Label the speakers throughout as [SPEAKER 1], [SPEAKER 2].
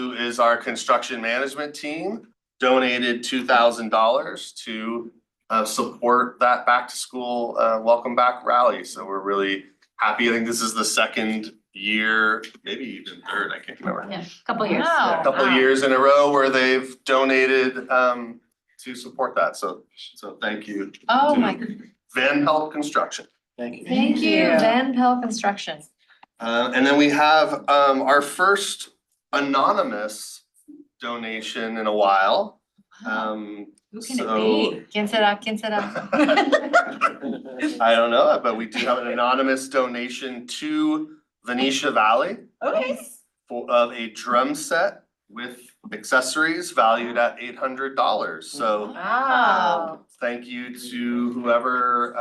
[SPEAKER 1] who is our construction management team, donated two thousand dollars to uh support that back to school uh welcome back rally. So we're really happy. I think this is the second year, maybe even third, I can't remember.
[SPEAKER 2] Yeah, couple years.
[SPEAKER 1] A couple
[SPEAKER 2] Wow.
[SPEAKER 1] years in a row where they've donated um to support that. So so thank you.
[SPEAKER 3] Oh
[SPEAKER 1] to
[SPEAKER 3] my,
[SPEAKER 1] Van Pelt Construction. Thank you.
[SPEAKER 3] thank you,
[SPEAKER 2] you.
[SPEAKER 3] Van Pelt Construction.
[SPEAKER 1] Uh, and then we have, um, our first anonymous donation in a while. Um,
[SPEAKER 2] Who can it
[SPEAKER 1] So-
[SPEAKER 2] be?
[SPEAKER 3] ¿Quién será? ¿Quién será?
[SPEAKER 1] I don't know, but we do have an anonymous donation to Venetia Valley
[SPEAKER 2] Okay.
[SPEAKER 1] for, of a drum set with accessories valued at eight hundred dollars. So
[SPEAKER 2] Wow.
[SPEAKER 1] thank you to whoever,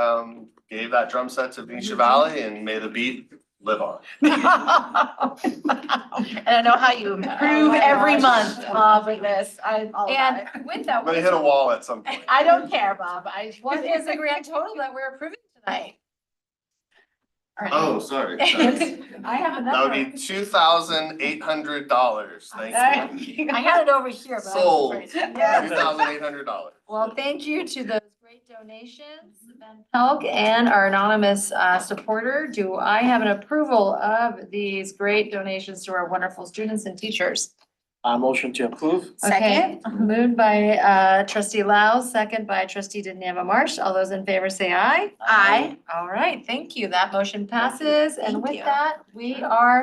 [SPEAKER 1] um, gave that drum set to Venetia Valley and may the beat live on.
[SPEAKER 4] And I know how you
[SPEAKER 3] Oh
[SPEAKER 4] improve
[SPEAKER 3] my
[SPEAKER 4] every
[SPEAKER 3] gosh.
[SPEAKER 4] month, Bob, with this, I'm all about
[SPEAKER 2] And
[SPEAKER 4] it.
[SPEAKER 2] with
[SPEAKER 1] I'm
[SPEAKER 2] that,
[SPEAKER 1] gonna hit a wall at some point.
[SPEAKER 4] I don't care, Bob, I.
[SPEAKER 2] what is the grand total that we're approving tonight?
[SPEAKER 1] Oh, sorry. sorry.
[SPEAKER 4] I have
[SPEAKER 1] That
[SPEAKER 4] another.
[SPEAKER 1] would be two thousand eight hundred dollars, thank you.
[SPEAKER 4] I had it over here, but. I
[SPEAKER 1] Sold, two
[SPEAKER 4] was afraid.
[SPEAKER 1] thousand eight hundred dollars.
[SPEAKER 3] Well, thank you to those great donations, Van Pelt and our anonymous uh, supporter. Do I have an approval of these great donations to our wonderful students and teachers?
[SPEAKER 5] Uh, motion to approve?
[SPEAKER 3] Okay, Moved by uh, trustee Lau, second by trustee Daniela Marsh. All those in favor say aye.
[SPEAKER 4] Aye.
[SPEAKER 3] All right, thank you. That motion passes. And
[SPEAKER 4] Thank
[SPEAKER 3] with
[SPEAKER 4] you.
[SPEAKER 3] that, we are